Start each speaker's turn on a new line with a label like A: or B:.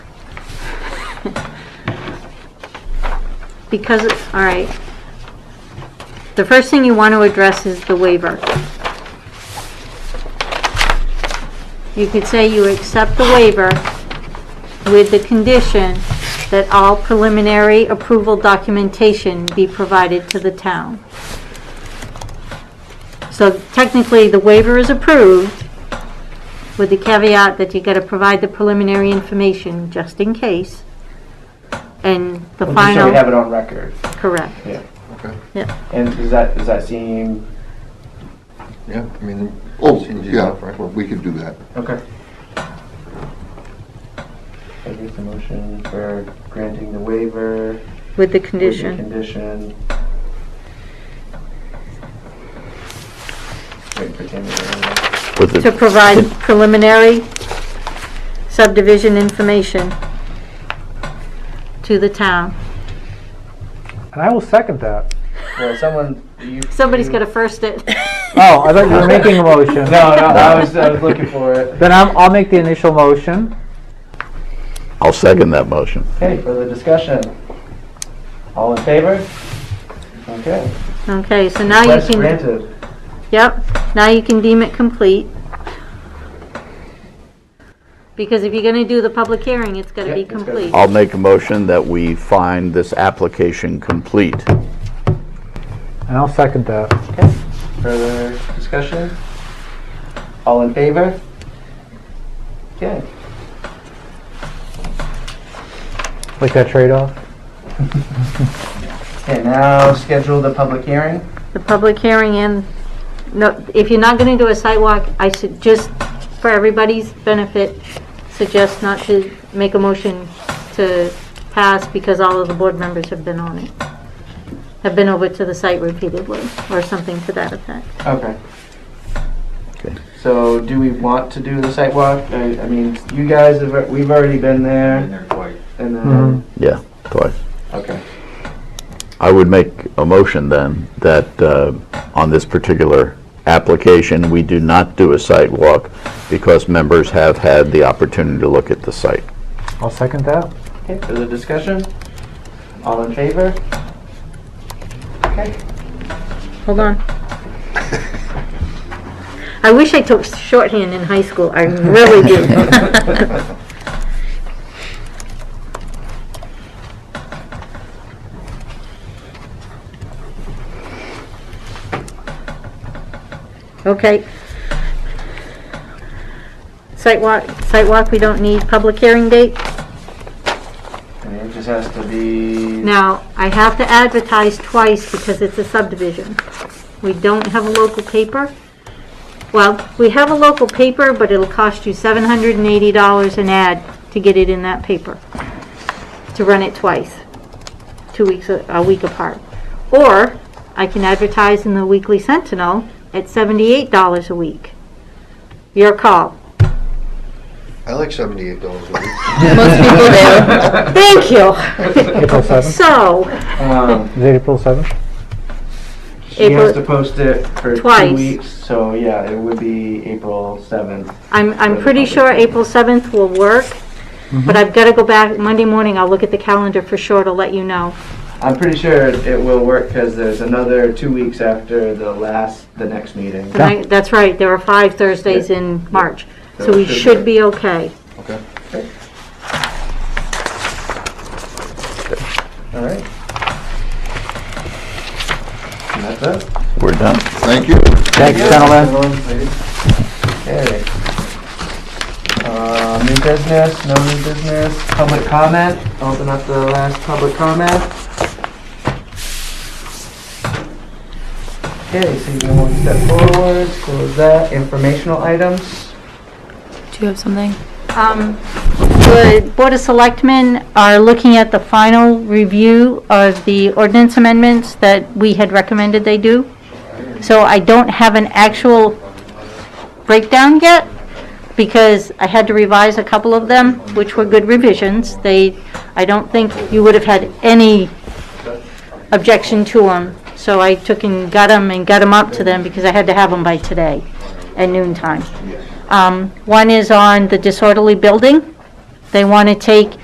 A: Because, it- all right. The first thing you want to address is the waiver. You could say you accept the waiver with the condition that all preliminary approval documentation be provided to the town. So technically, the waiver is approved with the caveat that you got to provide the preliminary information just in case. And the
B: Well,
A: final.
B: Just so we have it on record,
A: Correct.
B: yeah.
C: Okay.
A: Yeah.
B: And does that, does that seem,
C: Yeah, I mean,
D: Oh,
C: Change it
D: yeah,
C: up, right?
D: well, we can do that.
B: okay. I guess the motion for granting the waiver. with
A: With the
B: the
A: condition.
B: Condition. Wait for Tammy to-
E: With
A: To
E: the,
A: provide preliminary subdivision information to the town.
F: And I will second that.
B: Well, someone, you.
A: Somebody's
B: you-
A: got to first it.
F: Oh, I thought you were making a motion.
B: No, no, I was, I was looking for it.
F: Then I'm, I'll make the initial motion.
E: I'll second that motion.
B: Okay, further discussion. All in favor? Okay.
A: Okay, so now you
B: Request
A: can,
B: granted.
A: yep, now you can deem it complete. Because if you're going to do the public hearing, it's got to
B: Yeah,
A: be
B: it's gotta-
A: complete.
E: I'll make a motion that we find this application complete.
F: And I'll second that.
B: Further discussion? All in favor? Okay.
F: Like that trade-off.
B: Okay, now schedule the public hearing.
A: The public hearing and, no, if you're not going to do a sidewalk, I should, just for everybody's benefit, suggest not to make a motion to pass because all of the board members have been on it, have been over to the site repeatedly, or something to that effect.
B: Okay.
E: Okay.
B: So do we want to do the site walk? I, I mean, you guys have, we've already been there and then,
E: Yeah, twice.
B: okay.
E: I would make a motion then that uh, on this particular application, we do not do a site walk because members have had the opportunity to look at the site.
F: I'll second that.
B: Okay, further discussion? All in favor? Okay.
A: Hold on. I wish I took shorthand in high school, I really do. Okay. Sidewalk, sidewalk, we don't need public hearing date?
B: And it just has to be.
A: Now, I have to advertise twice because it's a subdivision. We don't have a local paper. Well, we have a local paper, but it'll cost you $780 an ad to get it in that paper, to run it twice, two weeks, a a week apart. Or I can advertise in the Weekly Sentinel at $78 a week. Your call.
C: I like seventy-eight dollars a week.
A: Most people do. Thank you.
F: April 7th.
A: So,
B: Um,
F: Is it April 7th?
B: She has to
A: April-
B: post it for two
A: Twice.
B: weeks, so yeah, it would be April seventh.
A: I'm, I'm pretty sure April 7th will work, but I've got to go back, Monday morning, I'll look at the calendar for sure to let you know.
B: I'm pretty sure it will work because there's another two weeks after the last, the next meeting.
A: And I- That's right, there are five Thursdays in March, so we should be okay.
C: Okay.
B: All right. And that's it.
E: We're done.
D: Thank you.
F: Thanks, gentlemen.
B: Okay. Uh, new business, no new business, public comment, open up the last public comment. Okay, so you can one step forward, close that, informational items.
G: Do you have something?
A: Um, The Board of Selectmen are looking at the final review of the ordinance amendments that we had recommended they do. So I don't have an actual breakdown yet, because I had to revise a couple of them, which were good revisions. They, I don't think you would have had any objection to them. So I took and got them and got them up to them, because I had to have them by today at noon time. Um, One is on the disorderly building. They want to take